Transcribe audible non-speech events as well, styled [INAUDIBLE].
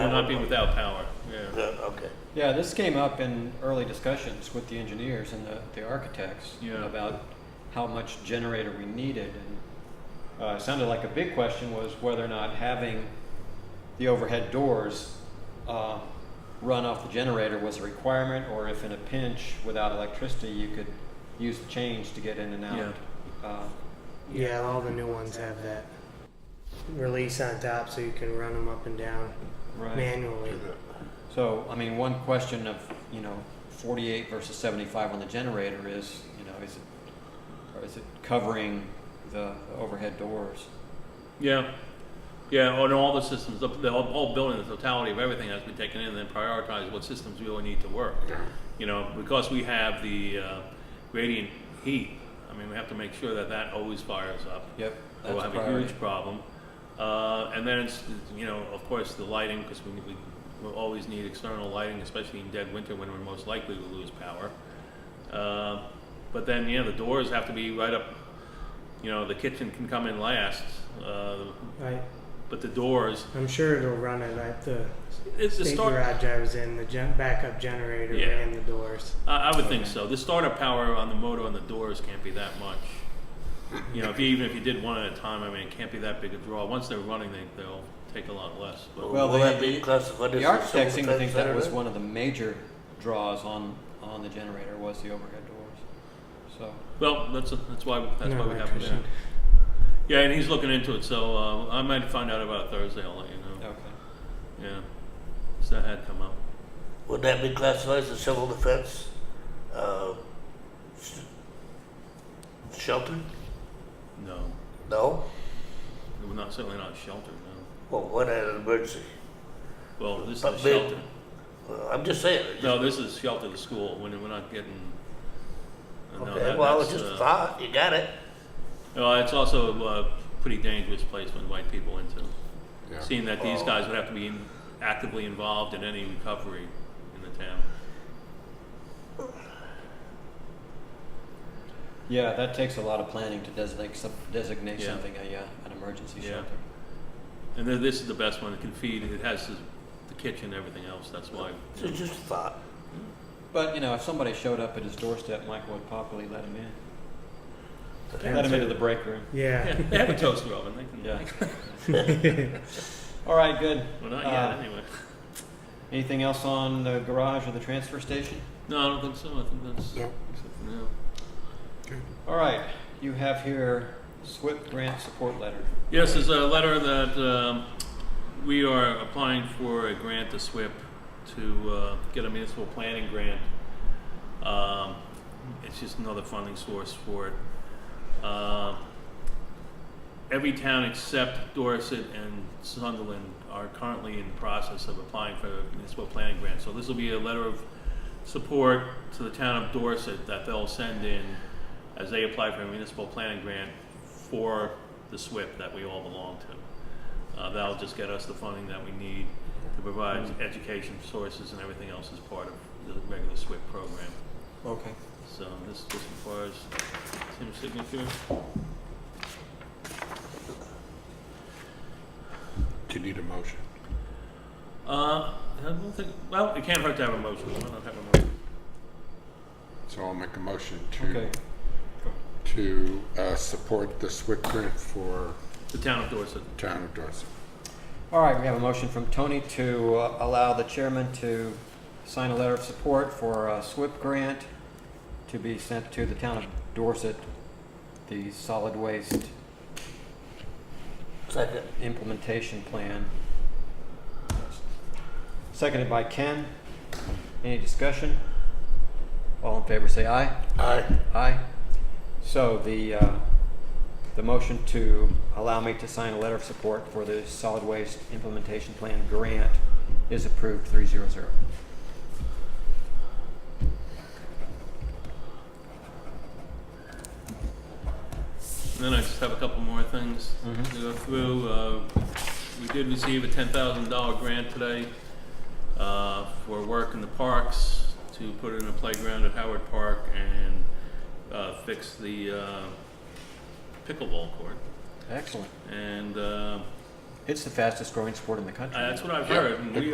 not be without power, Yeah, yeah, Okay. Yeah, this came up in early discussions with the engineers and the, the architects Yeah. about how much generator we needed. And uh, it sounded like a big question was whether or not having the overhead doors uh, run off the generator was a requirement, or if in a pinch without electricity you could use the change to get in and out. Uh, Yeah, all the new ones have that release on top so you can run them up and down right. manually. So, I mean, one question of, you know, forty-eight versus seventy-five on the generator is, you know, is it, or is it covering the the overhead doors? yeah, yeah. On all the systems, the, the whole, whole building, the totality of everything has been taken in, and then prioritized what systems really need to work. You know, because we have the uh, gradient heat. I mean, we have to make sure that that always fires up. Yep, We'll that's a have a priority. Oh, huge problem. Uh, and then it's, you know, of course, the lighting, because we, we will always need external lighting, especially in dead winter when we're most likely to lose power. Uh, but then, yeah, the doors have to be right up, you know, the kitchen can come in last, uh, I, but the doors, I'm sure it'll run it at the it's the state start, garage I was in. The gen- backup generator Yeah. ran the doors. I, I would think Okay. so. The startup power on the motor on the doors can't be that much. You know, if you, even if you did one at a time, I mean, it can't be that big a draw. Once they're running, they, they'll take a lot less, but. Well, Will the- that be classified as The a architect civil seemed to think that was defense one of the major draws on, on the generator was the overhead doors. So, Well, that's that's why that's No why we have him there. electrician. Yeah, and he's looking into it, so uh, I might find out about it Thursday. I'll let you know. okay. Yeah, so that had come up. area? Would that be classified as a civil defense uh, s- shelter? No, No? we're not certainly not sheltered. No. Well, what an emergency. Well, this But is they- shelter. Well, I'm just saying. No, this is shelter to school. When we're not getting. uh, no, Okay, that- well, it's that's, just a uh, thought. You got it. well, it's also a uh, pretty dangerous place to invite people into. Seeing that these Oh. guys would have to be in, actively involved in any recovery in the town. Yeah, that takes a lot of planning to designate, some- designate Yeah. something a, uh, an emergency Yeah. shelter. And then this is the best one. It can feed. It has the the kitchen, everything else. That's why. It's just a thought. But, you know, if somebody showed up at his doorstep, Michael would probably let him in. Let him into the break room. Yeah, Yeah. they have a toaster oven. They can. Yeah. [LAUGHS] All right, good. Well, not Uh, yet, anyway. Anything else on the garage or the transfer station? No, I don't think so. I think that's. No. except for now. All right, you have here SWIP grant support letter. Yes, there's a letter that um, we are applying for a grant to SWIP to uh, get a municipal planning grant. Um, It's just another funding source for it. Uh, Every town except Dorset and Sunderland are currently in the process of applying for a municipal planning grant. So this will be a letter of support to the town of Dorset that they'll send in as they apply for a municipal planning grant for the SWIP that we all belong to. Uh, that'll just get us the funding that we need to provide education sources and everything else as part of the regular SWIP program. Okay. So this just requires Tim's signature. Do you need a motion? Uh, I don't think, well, it can't hurt to have a motion. Why not have a motion? So I'll make a motion Okay. to, to uh, support the SWIP grant for The town of Dorset. town of Dorset. All right, we have a motion from Tony to uh, allow the chairman to sign a letter of support for a SWIP grant to be sent to the town of Dorset, the solid waste Second. implementation plan. Seconded by Ken. Any discussion? All in favor, say aye. Aye. Aye. So the, uh, the motion to allow me to sign a letter of support for the solid waste implementation plan grant is approved three zero zero. And then I just have a couple more things Mhm. to go through. Uh, we did receive a ten thousand dollar grant today, uh, for work in the parks to put in a playground at Howard Park and, uh, fix the, uh, pickleball court. Excellent. And, uh, It's the fastest growing sport in the country. I- that's what I've Yeah, heard. and we